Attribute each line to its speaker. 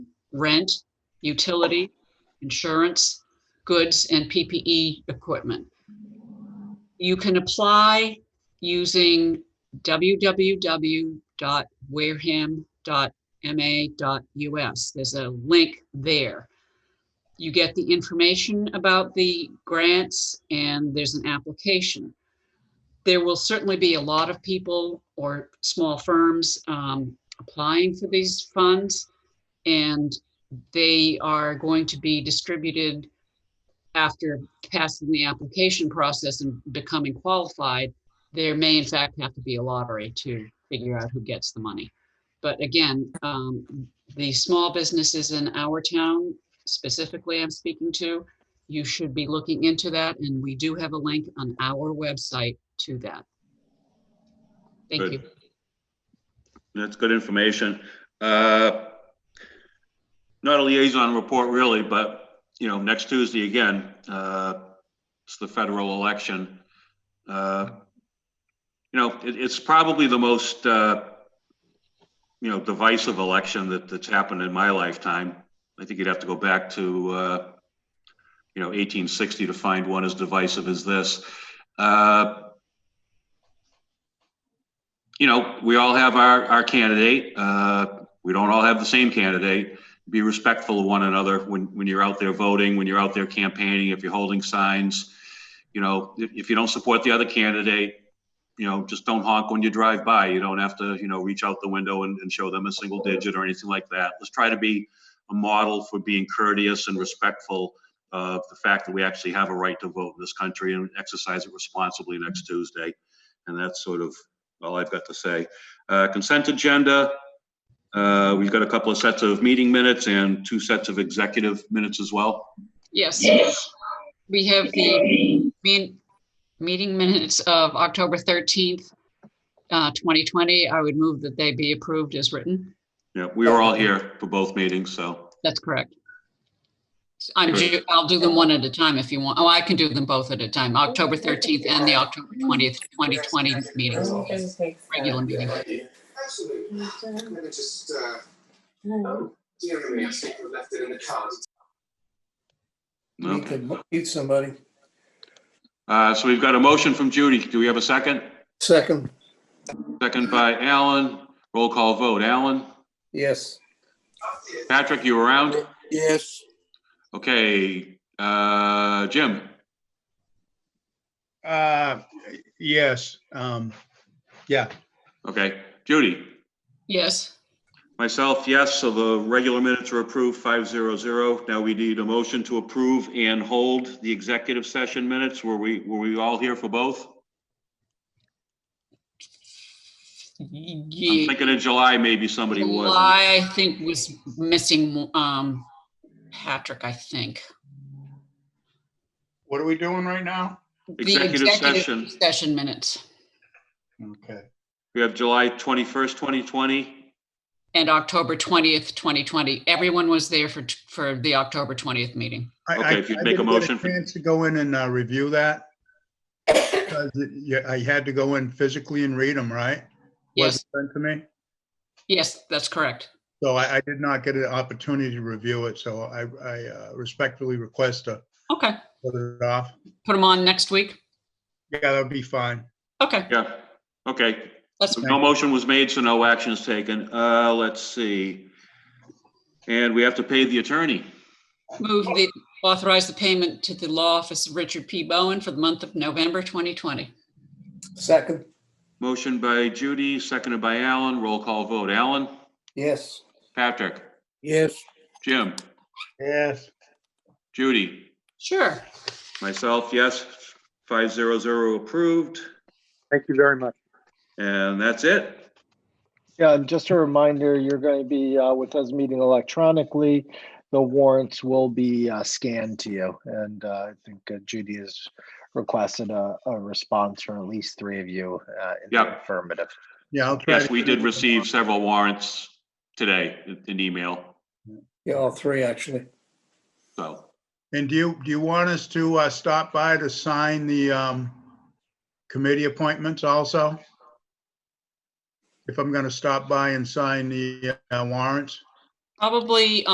Speaker 1: rent, utility, insurance, goods, and PPE equipment. You can apply using www.wareham.ma.us. There's a link there. You get the information about the grants and there's an application. There will certainly be a lot of people or small firms um, applying for these funds and they are going to be distributed after passing the application process and becoming qualified. There may in fact have to be a lottery to figure out who gets the money. But again, um, the small businesses in our town specifically I'm speaking to, you should be looking into that and we do have a link on our website to that. Thank
Speaker 2: Good.
Speaker 1: you.
Speaker 2: That's good information. Uh, Not a liaison report really, but, you know, next Tuesday again, uh, it's the federal election. Uh, You know, it, it's probably the most, uh, you know, divisive election that, that's happened in my lifetime. I think you'd have to go back to, uh, you know, 1860 to find one as divisive as this. Uh, you know, we all have our, our candidate. Uh, we don't all have the same candidate. Be respectful of one another when, when you're out there voting, when you're out there campaigning, if you're holding signs. You know, if, if you don't support the other candidate, you know, just don't honk when you drive by. You don't have to, you know, reach out the window and, and show them a single digit or anything like that. Let's try to be a model for being courteous and respectful of the fact that we actually have a right to vote in this country and exercise it responsibly next Tuesday. And that's sort of all I've got to say. Uh, Consent agenda, uh, we've got a couple of sets of meeting minutes and two sets of executive minutes as well.
Speaker 1: Yes, we have the mean, meeting minutes of October 13th, uh, 2020. I would move that they be approved as written.
Speaker 2: Yeah, we were all here for both meetings, so,
Speaker 1: That's correct. I'm, ju- I'll do them one at a time if you want. Oh, I can do them both at a time. October 13th and the October 20th, 2020 meetings, regular meeting.
Speaker 3: Absolutely. I'm gonna just, uh, um, dear me, I think we left it in the car.
Speaker 4: You
Speaker 2: no.
Speaker 4: could mute somebody.
Speaker 2: Uh, so we've got a motion from Judy. Do we have a second?
Speaker 4: Second,
Speaker 2: Second by Alan. Roll call vote. Alan?
Speaker 4: yes.
Speaker 2: Patrick, you around?
Speaker 4: Yes.
Speaker 2: Okay, uh, Jim?
Speaker 5: Uh, yes, um, yeah,
Speaker 2: Okay, Judy?
Speaker 1: Yes,
Speaker 2: Myself, yes, so the regular minutes are approved, five zero zero. Now we need a motion to approve and hold the executive session minutes. Were we, were we all here for both? I'm
Speaker 1: Ye-
Speaker 2: thinking in July, maybe somebody was.
Speaker 1: July, I think, was missing, um, Patrick, I think.
Speaker 5: what are we doing right now?
Speaker 1: The
Speaker 2: Executive session.
Speaker 1: Session minutes
Speaker 5: Okay,
Speaker 2: We have July twenty-first, twenty twenty.
Speaker 1: and October 20th, 2020. Everyone was there for, for the October 20th meeting.
Speaker 5: I-
Speaker 2: Okay,
Speaker 5: I-
Speaker 2: if you'd
Speaker 5: I
Speaker 2: make a
Speaker 5: didn't get
Speaker 2: motion for-
Speaker 5: Chance to go in and, uh, review that? Because it- Yeah, I had to go in physically and read them, right?
Speaker 1: Yes,
Speaker 5: Wasn't sent to me,
Speaker 1: yes, that's correct.
Speaker 5: so I, I did not get an opportunity to review it, so I, I uh, respectfully request to
Speaker 1: Okay,
Speaker 5: put it off.
Speaker 1: put them on next week.
Speaker 5: Yeah, that'd be fine.
Speaker 1: Okay,
Speaker 2: Yeah, okay.
Speaker 1: that's,
Speaker 2: No motion was made, so no action is taken. Uh, let's see. And we have to pay the attorney.
Speaker 1: move the, authorize the payment to the law office of Richard P. Bowen for the month of November 2020.
Speaker 4: Second,
Speaker 2: Motion by Judy, seconded by Alan. Roll call vote. Alan?
Speaker 4: yes.
Speaker 2: Patrick?
Speaker 4: Yes.
Speaker 2: Jim?
Speaker 5: Yes.
Speaker 2: Judy?
Speaker 1: Sure.
Speaker 2: Myself, yes, five zero zero approved,
Speaker 6: Thank you very much.
Speaker 2: and that's it.
Speaker 6: Yeah, and just a reminder, you're going to be uh, with us meeting electronically. The warrants will be uh, scanned to you. And uh, I think uh, Judy has requested a, a response from at least three of you uh, in the
Speaker 2: Yep.
Speaker 6: affirmative.
Speaker 5: Yeah, I'll try.
Speaker 2: Yes,
Speaker 5: to-
Speaker 2: we did receive several warrants today, in- in email,
Speaker 4: Yeah, all three, actually.
Speaker 2: so.
Speaker 5: And do you, do you want us to, uh, stop by to sign the, um, committee appointments also? If I'm gonna stop by and sign the uh, warrants?
Speaker 1: Probably